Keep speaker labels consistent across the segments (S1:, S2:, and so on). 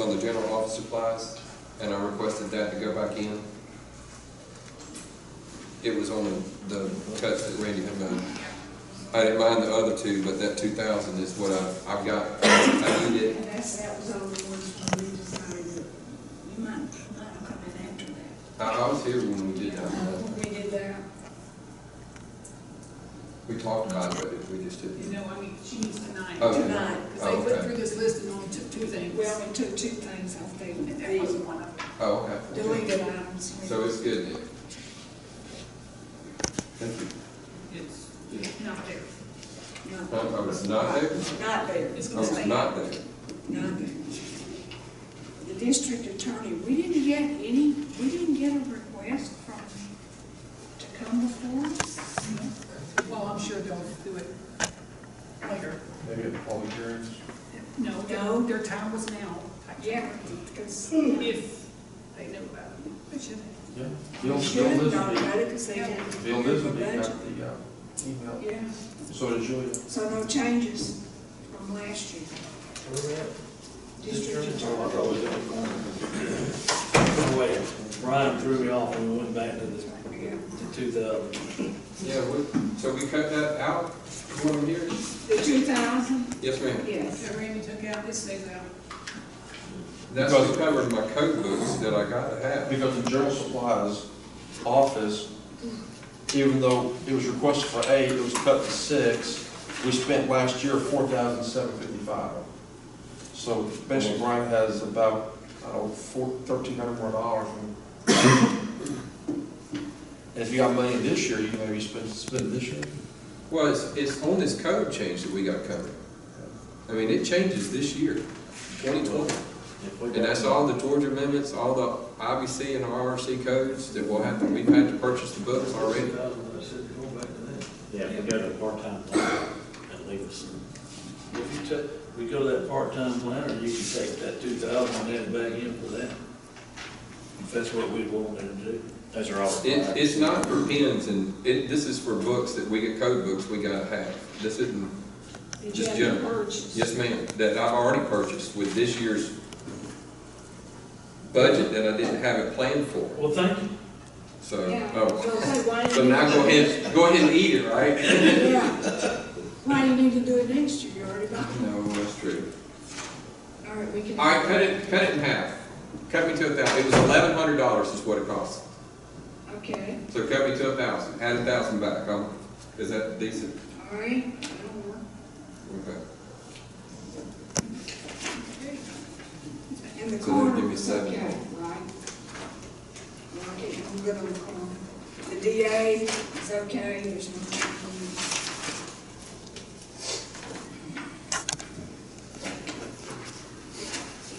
S1: on the general office supplies, and I requested that to go back in. It was on the, the cuts that Randy had done. I didn't mind the other two, but that two thousand is what I, I've got, I need it.
S2: And that's, that was always when we decided that you might, might come in after that.
S1: I, I was here when we did that,
S2: Uh, We did that,
S1: we talked about it, but we just
S3: You
S1: didn't.
S3: know, I mean, she needs to nine,
S1: Okay.
S2: tonight.
S1: Oh,
S3: because they
S1: okay.
S3: put through this list and only took two things.
S2: Well, we took two things off there,
S3: And that
S2: the
S3: wasn't one of them.
S1: Oh, okay.
S2: deleted items.
S1: So it's good then. Thank you.
S3: It's not there.
S2: Not-
S1: Oh, oh, it's not there?
S2: Not there,
S3: It's
S1: Oh,
S3: gonna
S1: it's
S3: stay.
S1: not there.
S2: not there. The district attorney, we didn't get any, we didn't get a request from, to come before us.
S3: Well, oh, I'm sure they'll do it later.
S4: Maybe at the public hearings?
S3: No,
S2: No.
S3: their, their time was now.
S2: Yeah, because
S3: If they know about it. But should they?
S4: Yeah.
S2: we
S4: Bill,
S2: should
S4: Bill
S2: have
S4: Lisby,
S2: known about it, because they didn't.
S4: Bill Lisby
S2: budget.
S4: got the, uh, email,
S2: Yeah,
S4: so did Julia.
S2: so no changes from last year. District attorney.
S5: Wait, Brian threw me off and we went back to this, to two thousand.
S1: Yeah, we, so we cut that out from what I'm hearing?
S2: The two thousand,
S1: Yes, ma'am.
S2: yes.
S3: That Randy took out, this stays out.
S1: That's what covers my code books that I gotta have.
S4: Because the general supplies office, even though it was requested for eight, it was cut to six, we spent last year four thousand seven fifty-five. So basically Brian has about, I don't know, four, thirteen hundred more dollars. And if you got money this year, you maybe spend, spend it this year.
S1: Well, it's, it's on this code change that we got covered. I mean, it changes this year, twenty twenty. And that's all the Georgia amendments, all the IBC and RRC codes that we'll have, to- we've had to purchase the books already.
S5: Yeah, if we go to a part-time plan, that leaves us. some- If you took, we go to that part-time planner, you can take that two thousand and add it back in for that. If that's what we wanted to do. Those are all.
S1: It, it's not for pens and, it, this is for books that we get, code books we gotta have. This isn't,
S2: Did you
S1: Just
S2: have the
S1: general.
S2: purchase?
S1: yes ma'am, that I've already purchased with this year's budget that I didn't have it planned for.
S5: Well, thank you.
S1: So,
S2: Yeah.
S1: oh,
S2: So say, why
S1: so
S2: didn't
S1: now
S2: you-
S1: go ahead, go ahead and eat it, right?
S2: Yeah. Why do you need to do it next year? You already got it.
S1: No, that's true.
S2: All right, we can.
S1: All right, cut it, cut it in half. Cut me to a thousand. It was eleven hundred dollars is what it cost.
S2: Okay,
S1: So cut me to a thousand, add a thousand back. Um, is that decent?
S2: all right, that'll work.
S1: Okay.
S2: And the
S1: So they'll
S2: corner
S1: give you
S2: was
S1: seven.
S2: okay, right? Like it, you go to the corner. The DA is okay, there's no. problem.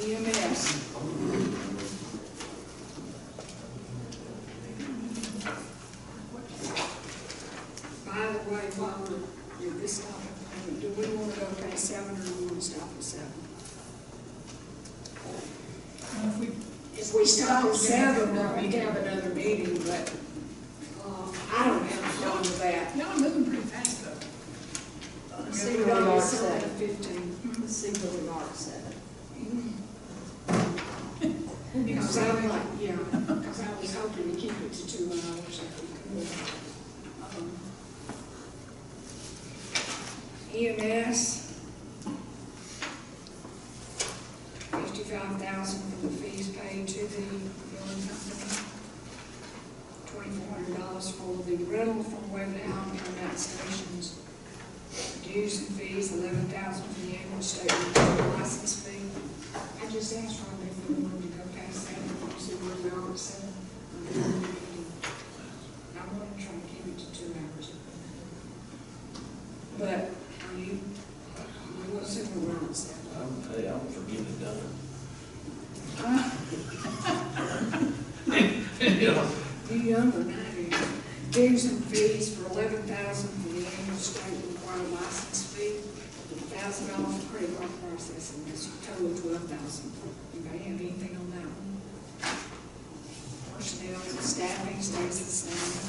S2: E EMS. By the way, while we're, at this topic, do we want to go past seven or do we want to stop at seven?
S3: And if we
S2: If we stop at seven, then we can have another meeting, but, uh, I don't have a problem with that.
S3: No, I'm moving pretty fast though.
S2: See what Mm-hmm. we are seven fifteen.
S6: See where we are at seven.
S2: Because I like, yeah, because I was hoping to keep it to two hours if we could. Um, E EMS. Fifty-five thousand for the fees paid to the building company. Twenty-four hundred dollars for the rental from Waverly Home Internet Stations. Dues and fees, eleven thousand for the annual state renewal license fee. I just asked Rob if we wanted to go past seven, you said we're now at seven. I want to try and keep it to two hours. But, are you, we will see where we're at seven.
S5: I'm, hey, I'm for getting it done.
S2: You younger than I am. Dues and fees for eleven thousand for the annual state required license fee, thousand dollars for credit card processing, that's a total of twelve thousand. Anybody have anything on that one? Personnel, staffing stays the same.